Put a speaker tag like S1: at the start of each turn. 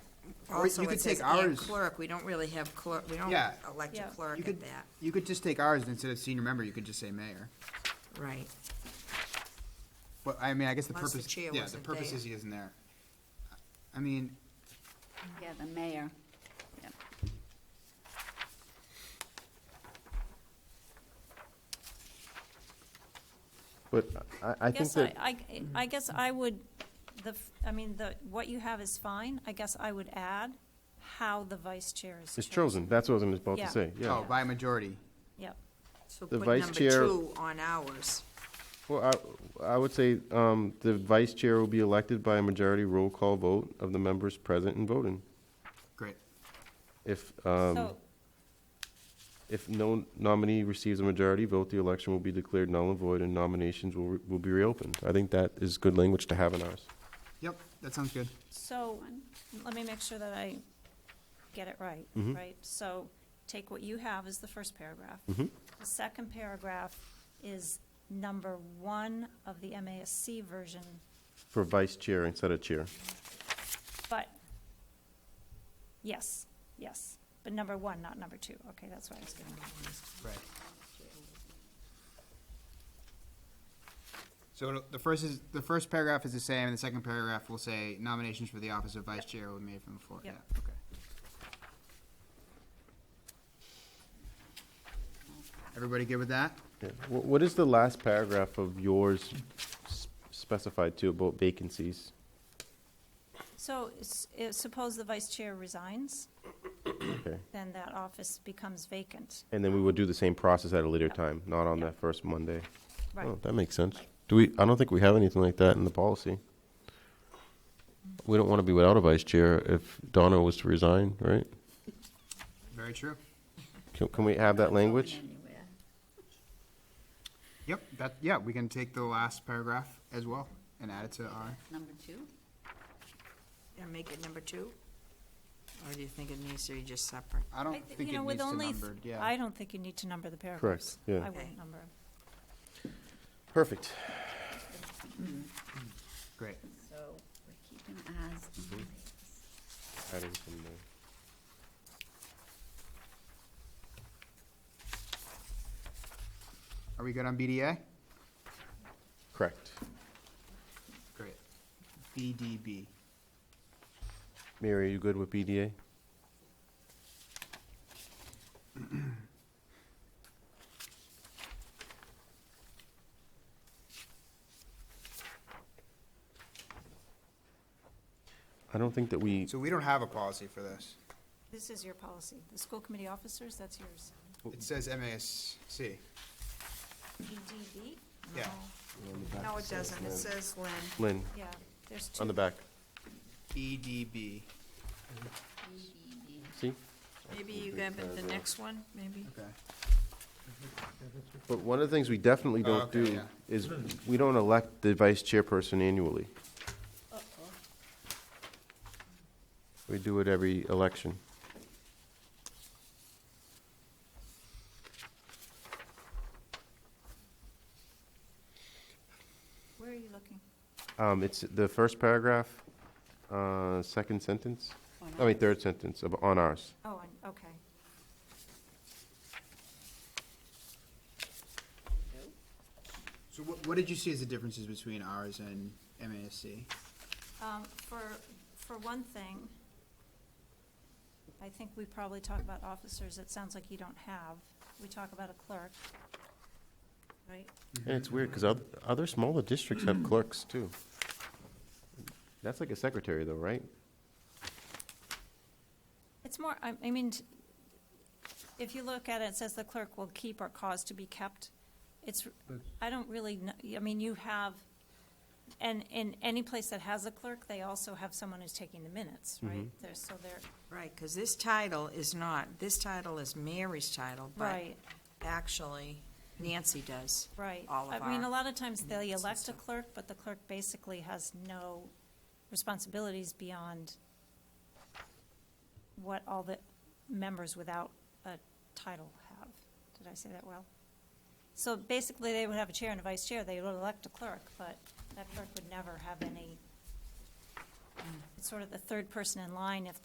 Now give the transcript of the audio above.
S1: Or you
S2: also
S1: could
S2: it says
S1: take
S2: and
S1: ours.
S2: clerk, we don't really have clerk, we don't
S1: Yeah.
S2: elect
S3: Yeah.
S2: a clerk
S1: You
S2: at
S1: could,
S2: that,
S1: you could just take ours, and instead of senior member, you could just say mayor.
S2: right.
S1: But, I mean, I guess the
S2: Unless the
S1: purpose,
S2: chair
S1: yeah, the
S2: wasn't
S1: purpose
S2: there.
S1: is he isn't there. I mean,
S4: Yeah, the mayor. Yep.
S5: But I, I think
S3: Guess I,
S5: that,
S3: I, I guess I would, the, f- I mean, the, what you have is fine. I guess I would add how the vice chair is
S5: it's chosen, that's what I was about
S3: Yeah.
S5: to say,
S1: oh,
S5: yeah.
S1: by majority.
S3: Yep.
S2: So
S5: The
S2: put
S5: vice
S2: number
S5: chair-
S2: two on ours.
S5: Well, I, I would say, um, the vice chair will be elected by a majority roll call vote of the members present and voting.
S1: Great.
S5: If,
S3: So,
S5: um, if no nominee receives a majority vote, the election will be declared null and void and nominations will, re- will be reopened. I think that is good language to have in ours.
S1: Yep, that sounds good.
S3: so, let me make sure that I get it right,
S5: Mm-hmm.
S3: right? So, take what you have as the first paragraph.
S5: Mm-hmm.
S3: The second paragraph is number one of the MASC version,
S5: For vice chair instead of chair.
S3: but, yes, yes, but number one, not number two. Okay, that's what I was getting at.
S1: Right. So it'll- the first is, the first paragraph is the same, and the second paragraph will say nominations for the office of vice chair will be made from the floor. Yeah,
S3: Yep.
S1: okay. Everybody good with that?
S5: Yeah. Wh- What is the last paragraph of yours s- specified to about vacancies?
S3: So, s- uh, suppose the vice chair resigns,
S5: Okay. Oh.
S3: then that office becomes vacant.
S5: And then we would do the same process at a later time, not on
S3: Yeah.
S5: that first Monday.
S3: Right.
S5: Oh, that makes sense. Do we, I don't think we have anything like that in the policy. We don't want to be without a vice chair if Donna was to resign, right?
S1: Very true.
S5: Can, can we have that language?
S4: Anywhere.
S1: Yep, that, yeah, we can take the last paragraph as well and add it to our,
S4: Number two?
S2: And make it number two? Or do you think it needs to be just separate?
S1: I don't
S3: I thi-
S1: think
S3: you
S1: it
S3: know, with
S1: needs to
S3: only th-
S1: numbered, yeah.
S3: I don't think you need to number the paragraphs.
S5: yeah.
S3: I wouldn't number 'em.
S5: Perfect.
S1: Great.
S4: So we're keeping eyes on these.
S5: Adding some more.
S1: Are we good on BDA?
S5: Correct.
S1: Great. BDB.
S5: Mary, are you good with BDA? I don't think that we,
S1: So we don't have a policy for this.
S3: This is your policy. The school committee officers, that's yours.
S1: It says MASC.
S3: EDB?
S1: Yeah.
S2: No, it doesn't, it says Lynn.
S5: Lynn,
S3: Yeah, there's two.
S5: on the back,
S1: BDB.
S5: see?
S2: Maybe you grab it the next one, maybe?
S1: Okay.
S5: But one of the things we definitely
S1: Oh,
S5: don't
S1: okay,
S5: do
S1: yeah.
S5: is, we don't elect the vice chairperson annually. We do it every election.
S3: Where are you looking?
S5: Um, it's the first paragraph, uh, second sentence, I mean, third sentence of, on ours.
S3: Oh, on- okay.
S1: So what, what did you see as the differences between ours and MASC?
S3: Um, For, for one thing, I think we probably talk about officers, it sounds like you don't have. We talk about a clerk, right?
S5: And it's weird, because other, other smaller districts have clerks, too. That's like a secretary, though, right?
S3: It's more, I, I mean, t- if you look at it, it says the clerk will keep or cause to be kept. It's, I don't really, kn- I mean, you have, and in any place that has a clerk, they also have someone who's taking the minutes, right? There's, so they're,
S2: Right, because this title is not, this title is Mary's title, but
S3: right,
S2: actually Nancy does.
S3: right.
S2: All of
S3: I mean, a
S2: our
S3: lot of times they
S2: minutes and
S3: elect a
S2: stuff.
S3: clerk, but the clerk basically has no responsibilities beyond what all the members without a title have. Did I say that well? So basically, they would have a chair and a vice chair, they would elect a clerk, but that clerk would never have any, it's sort of the third person in line if